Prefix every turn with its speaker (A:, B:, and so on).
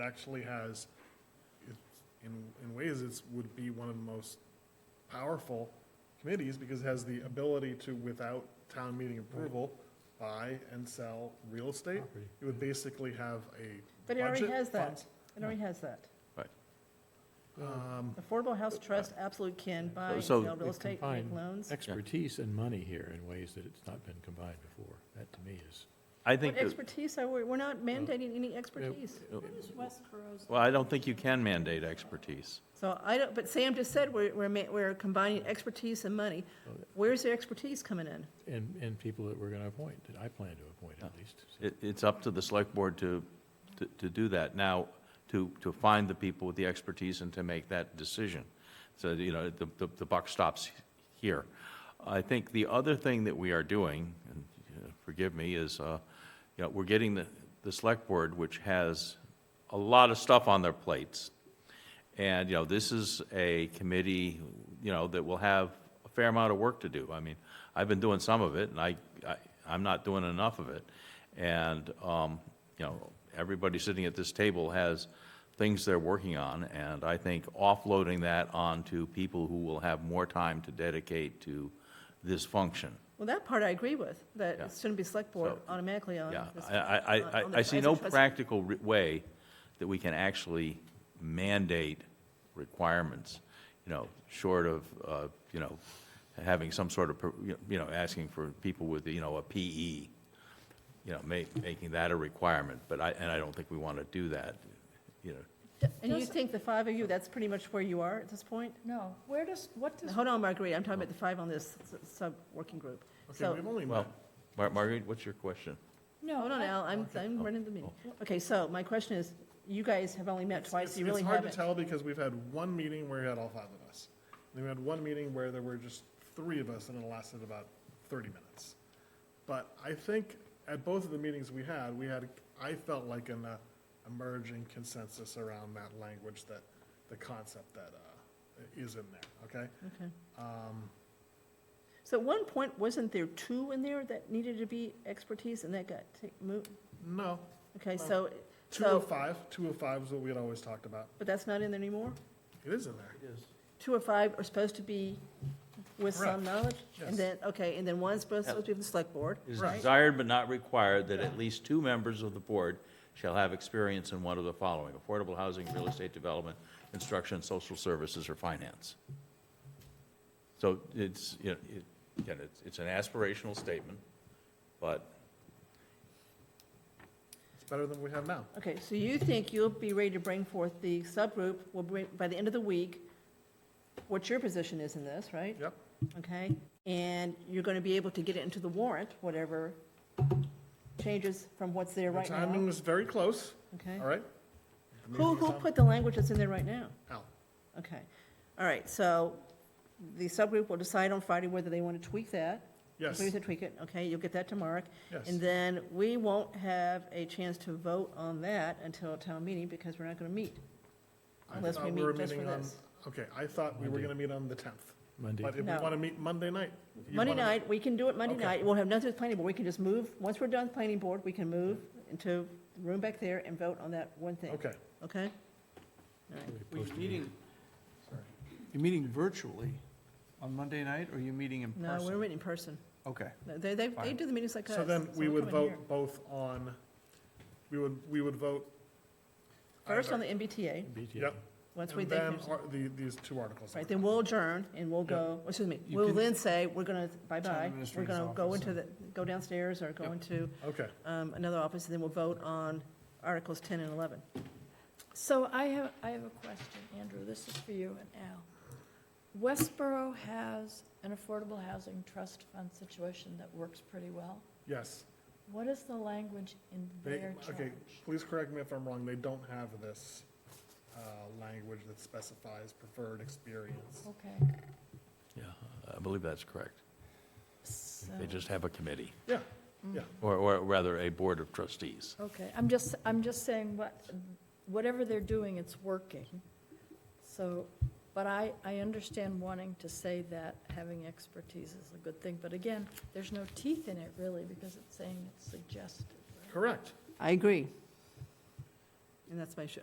A: actually has, it- in, in ways, it's, would be one of the most powerful committees because it has the ability to, without town meeting approval, buy and sell real estate.
B: Property.
A: It would basically have a.
C: But it already
A: budget
C: has that.
A: funds.
C: It already has that.
A: Um,
C: Affordable House Trust absolutely can buy and
D: So-
C: sell real estate, make
B: Combine.
C: loans.
B: Expertise and money here in ways that it's not been combined before. That to me is,
D: I
C: What
D: think, Uh, that-
C: expertise are we, we're not mandating any expertise.
D: well, I don't think you can mandate expertise.
C: So I don't, but Sam just said we're, we're, ma- we're combining expertise and money.
D: Oh,
C: Where's the expertise coming in?
B: and, and people that we're going to appoint, that I plan to appoint at least. So
D: It, it's up to the select board to, to- to do that. Now, to, to find the people with the expertise and to make that decision. So, you know, the, the- the buck stops here. I think the other thing that we are doing, and uh, forgive me, is, uh, you know, we're getting the, the select board, which has a lot of stuff on their plates. And, you know, this is a committee, you know, that will have a fair amount of work to do. I mean, I've been doing some of it, and I, I, I'm not doing enough of it. And, um, you know, everybody sitting at this table has things they're working on, and I think offloading that onto people who will have more time to dedicate to this function.
C: Well, that part I agree with, that
D: Yeah.
C: it shouldn't be select board
D: So-
C: automatically on.
D: Yeah,
C: this- uh,
D: I, I,
C: on-
D: I-
C: on
D: I
C: the-
D: see
C: as a
D: no
C: trustee.
D: practical re- way that we can actually mandate requirements, you know, short of, uh, you know, having some sort of, per- you know, asking for people with, you know, a PE, you know, ma- making that a requirement, but I, and I don't think we want to do that, you know.
C: And you
E: Does-
C: think the five of you, that's pretty much where you are at this point?
E: No, where does, what does,
C: Hold on, Marguerite, I'm talking about the five on this s- sub-working group.
A: Okay,
C: So,
A: we've only
D: Well,
A: met,
D: Mar- Marguerite, what's your question?
E: no.
C: hold on,
E: I-
C: Al, I'm, I'm
A: Oh.
C: running the meeting. Okay, so my question is, you guys have only met twice,
A: it's
C: you
A: it's
C: really
A: hard to
C: haven't.
A: tell because we've had one meeting where we had all five of us. And then we had one meeting where there were just three of us and it lasted about thirty minutes. But I think at both of the meetings we had, we had, I felt like an uh, emerging consensus around that language that, the concept that uh, is in there, okay?
C: Okay.
A: um,
C: So at one point, wasn't there two in there that needed to be expertise and that got ta- moved?
A: No,
C: Okay,
A: Well,
C: so,
A: two of
C: so,
A: five, two of five is what we had always talked about.
C: but that's not in there anymore?
A: It is in there.
C: Two or five are supposed to be with some knowledge?
A: Yes.
C: And then, okay, and then one's supposed supposed to be with the select board?
D: It is
A: Right.
D: desired but not required that at least two members of the board shall have experience in one of the following: affordable housing, real estate development, instruction, social services, or finance. So it's, you know, it, again, it's, it's an aspirational statement, but
A: It's better than we have now.
C: Okay, so you think you'll be ready to bring forth the subgroup, will bring, by the end of the week, what your position is in this, right?
A: Yep.
C: Okay, and you're gonna be able to get it into the warrant, whatever changes from what's there
A: The
C: right
A: timing
C: now,
A: was very close,
C: okay?
A: all right?
C: Who, who put the language that's in there right now?
A: Al.
C: Okay, all right, so the subgroup will decide on Friday whether they want to tweak that.
A: Yes,
C: Maybe they tweak it, okay, you'll get that to Mark.
A: yes.
C: And then we won't have a chance to vote on that until town meeting because we're not going to meet.
A: I
C: unless
A: thought
C: we
A: were
C: meet just for
A: meeting on-
C: this.
A: Okay, I thought we were
B: Monday.
A: gonna meet on the tenth,
B: Monday,
A: but if we
C: No.
A: wanna meet Monday night. you
C: Monday
A: wanna-
C: night, we can do it Monday
A: Okay.
C: night. We'll have nothing with planning board. We can just move, once we're done with planning board, we can move into the room back there and vote on that one thing,
A: Okay,
C: okay?
B: we
F: Well,
B: post
F: you're
B: a
F: meeting,
A: Sorry.
F: you're meeting virtually on Monday night, or you're meeting in
C: No,
F: person?
C: we're in person.
F: Okay.
C: No, They, they, they
F: Fine.
C: do the meetings like us.
A: so then we
C: we're
A: would
C: coming here.
A: vote both on, we would, we would vote.
C: First on the
A: either-
C: MBTA,
B: BTA.
A: Yep.
C: once we
A: And
C: think,
A: then
C: there's-
A: ar- the, these two articles.
C: right, then we'll adjourn and we'll
A: Yep.
C: go, or excuse me,
F: You
C: we'll
F: can-
C: then say, we're going to, bye-bye. We're
F: administrator's
C: going to go
F: office
C: into the, go downstairs or go
F: Yep.
C: into
A: Okay,
C: um, another office, and then we'll vote on Articles 10 and 11.
E: So I have, I have a question, Andrew, this is for you and Al. Westboro has an affordable housing trust fund situation that works pretty well.
A: yes.
E: What is the language in
A: They,
E: their charge?
A: okay, please correct me if I'm wrong, they don't have this, uh, language that specifies preferred experience.
C: Oh.
E: Okay,
D: yeah, I believe that's correct.
E: so,
D: They just have a committee,
A: Yeah, yeah.
D: or, or rather, a board of trustees.
E: okay, I'm just, I'm just saying what, whatever they're doing, it's working. So, but I, I understand wanting to say that having expertise is a good thing, but again, there's no teeth in it really because it's saying it's suggested, right?
A: Correct.
C: I agree. And that's my, sh-